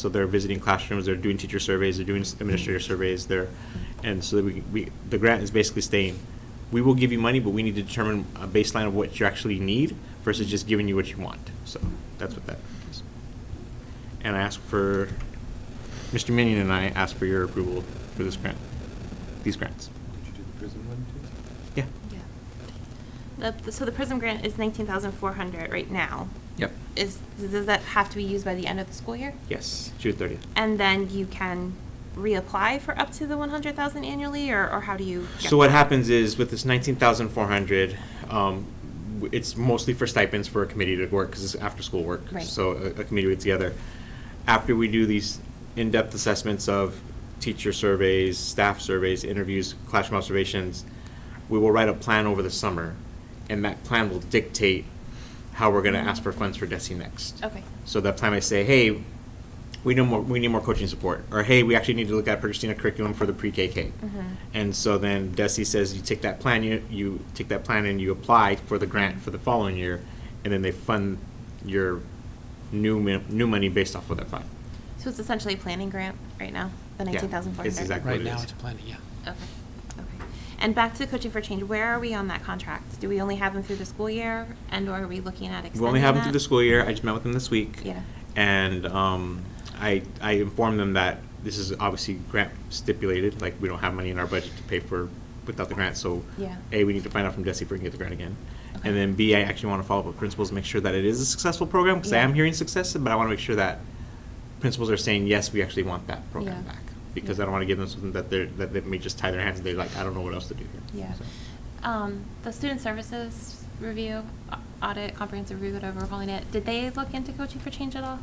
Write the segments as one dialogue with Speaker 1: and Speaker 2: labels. Speaker 1: So they're visiting classrooms, they're doing teacher surveys, they're doing administrator surveys, they're, and so that we, we, the grant is basically saying, we will give you money, but we need to determine a baseline of what you actually need versus just giving you what you want. So that's what that is. And I ask for, Mr. Minion and I ask for your approval for this grant, these grants.
Speaker 2: Did you do the prison one too?
Speaker 1: Yeah.
Speaker 3: The- the- So the PRISM grant is 19,400 right now.
Speaker 1: Yep.
Speaker 3: Is, does that have to be used by the end of the school year?
Speaker 1: Yes, June thirtieth.
Speaker 3: And then you can reapply for up to the 100,000 annually, or, or how do you? get
Speaker 1: So what
Speaker 3: that?
Speaker 1: happens is with this nineteen thousand four hundred, um, w- it's mostly for stipends for a committee to work because it's after school work.
Speaker 3: Right.
Speaker 1: So a, a committee gets together. After we do these in-depth assessments of teacher surveys, staff surveys, interviews, classroom observations, we will write a plan over the summer, and that plan will dictate how we're going to ask for funds for DESI next.
Speaker 3: Okay.
Speaker 1: So that plan may say, hey, we need more, we need more coaching support, or hey, we actually need to look at purchasing a curriculum for the pre-KK.
Speaker 3: Mhm.
Speaker 1: And so then Desi says, you take that plan, you, you take that plan and you apply for the grant for the following year, and then they fund your new, mi- new money based off of that plan.
Speaker 3: So it's essentially a planning grant right now, the
Speaker 1: Yeah,
Speaker 3: 19,400?
Speaker 1: it's exactly
Speaker 4: Right
Speaker 1: what it
Speaker 4: now,
Speaker 1: is.
Speaker 4: it's planning, yeah.
Speaker 3: Okay, okay. And back to Coaching for Change, where are we on that contract? Do we only have them through the school year, and/or are we looking at extending
Speaker 1: We only have them
Speaker 3: that?
Speaker 1: through the school year, I just met with them this week.
Speaker 3: Yeah.
Speaker 1: And, um, I, I informed them that this is obviously grant stipulated, like, we don't have money in our budget to pay for, without the grant, so.
Speaker 3: Yeah.
Speaker 1: A, we need to find out from Desi if we can get the grant again.
Speaker 3: Okay.
Speaker 1: And then B, I actually want to follow up with principals, make sure that it is a successful program, because I
Speaker 3: Yeah.
Speaker 1: am hearing success, but I want to make sure that principals are saying, yes, we actually want that program
Speaker 3: Yeah.
Speaker 1: back. Because I
Speaker 3: Yeah.
Speaker 1: don't want to give them something that they're, that they may just tie their hands, and they're like, I don't know what else to do here.
Speaker 3: Yeah.
Speaker 1: So,
Speaker 3: Um, the student services review, au- audit, comprehensive review, whatever we're calling it, did they look into coaching for change at all?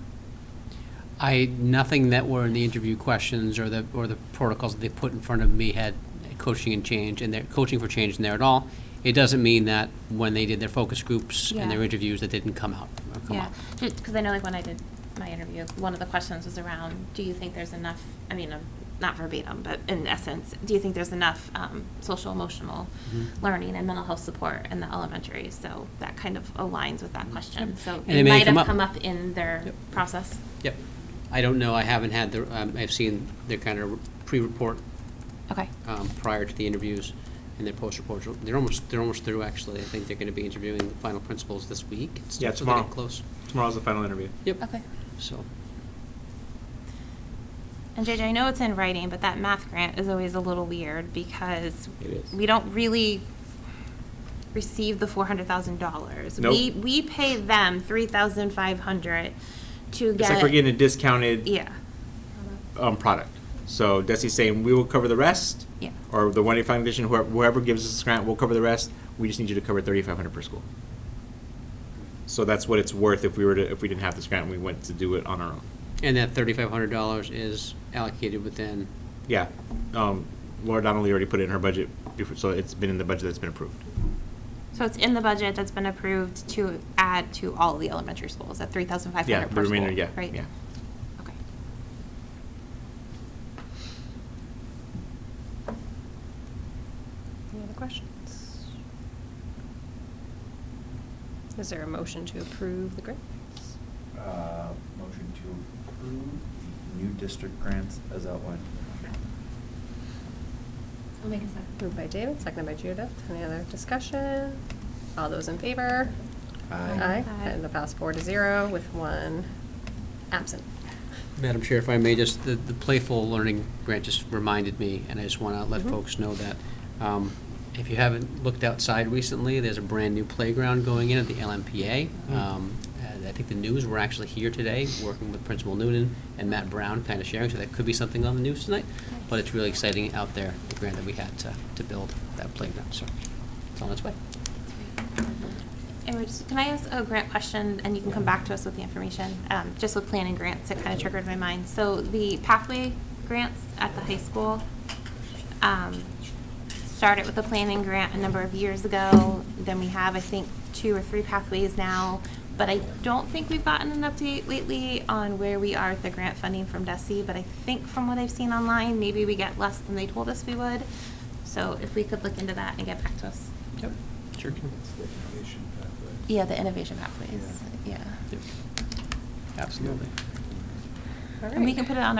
Speaker 4: I, nothing that were in the interview questions or the, or the protocols that they put in front of me had coaching and change, and they're coaching for change in there at all. It doesn't mean that when they did their focus groups and their
Speaker 3: Yeah.
Speaker 4: interviews, that didn't come out, or come
Speaker 3: Yeah,
Speaker 4: up.
Speaker 3: because I know like when I did my interview, one of the questions was around, do you think there's enough, I mean, um, not verbatim, but in essence, do you think there's enough um, social emotional
Speaker 4: Mhm.
Speaker 3: learning and mental health support in the elementary? So that kind of aligns with that question. So
Speaker 4: Mm-hmm. And
Speaker 3: it
Speaker 4: it may
Speaker 3: might
Speaker 4: come
Speaker 3: have
Speaker 4: up.
Speaker 3: come up in their
Speaker 4: Yep.
Speaker 3: process.
Speaker 4: Yep. I don't know, I haven't had the, um, I've seen their kind of pre-report
Speaker 3: Okay.
Speaker 4: um, prior to the interviews and their post-reports. They're almost, they're almost through, actually. I think they're gonna be interviewing the final principals this week. and stuff,
Speaker 1: Yeah,
Speaker 4: so they're
Speaker 1: tomorrow.
Speaker 4: getting Close.
Speaker 1: Tomorrow's the final interview.
Speaker 4: Yep.
Speaker 3: Okay.
Speaker 4: So,
Speaker 3: And JJ, I know it's in writing, but that math grant is always a little weird because
Speaker 1: It is.
Speaker 3: we don't really receive the four hundred thousand dollars.
Speaker 1: Nope.
Speaker 3: We we pay them three thousand five hundred to
Speaker 1: It's
Speaker 3: get.
Speaker 1: like we're getting a discounted.
Speaker 3: Yeah,
Speaker 1: um, product. So Desi's saying, we will cover the rest.
Speaker 3: Yeah.
Speaker 1: Or the one eighty five Foundation, whoever, whoever gives us this grant, we'll cover the rest. We just need you to cover thirty-five hundred per school. So that's what it's worth if we were to, if we didn't have this grant and we went to do it on our own.
Speaker 4: and that thirty-five hundred dollars is allocated within,
Speaker 1: Yeah, um, Laura Donnelly already put it in her budget before, so it's been in the budget that's been approved.
Speaker 3: so it's in the budget that's been approved to add to all the elementary schools at three thousand five
Speaker 1: Yeah,
Speaker 3: hundred
Speaker 1: the
Speaker 3: per school,
Speaker 1: remainder, yeah,
Speaker 3: right?
Speaker 1: yeah.
Speaker 3: Okay.
Speaker 5: Any other questions? Is there a motion to approve the grants?
Speaker 2: Uh, Motion to approve the new district grants as outlined.
Speaker 3: I'll make a second.
Speaker 5: Moved by David, seconded by Judith. Any other discussion? All those in favor?
Speaker 2: Aye.
Speaker 3: Aye.
Speaker 5: And the pass four to zero with one absent.
Speaker 4: Madam Chair, if I may, just, the, the playful learning grant just reminded me, and I just wanna let
Speaker 5: Mhm.
Speaker 4: folks know that, um, if you haven't looked outside recently, there's a brand-new playground going in at the LMPA. Um, and I think the news, we're actually here today, working with Principal Noonan and Matt Brown, kinda sharing, so that could be something on the news tonight. But it's really exciting out there, the grant that we had to, to build that playground, so it's on its way.
Speaker 3: And we're just, can I ask a grant question, and you can come back to us with the information, um, just with planning grants, it kind of triggered my mind. So the pathway grants at the high school, um, started with a planning grant a number of years ago, then we have, I think, two or three pathways now, but I don't think we've gotten an update lately on where we are with the grant funding from DESI, but I think from what I've seen online, maybe we get less than they told us we would. So if we could look into that and get back to us.
Speaker 4: Yep. Sure can.
Speaker 3: Yeah, the innovation pathways, yeah.
Speaker 4: Yep. Absolutely.
Speaker 5: All
Speaker 3: And we
Speaker 5: right.
Speaker 3: can put it on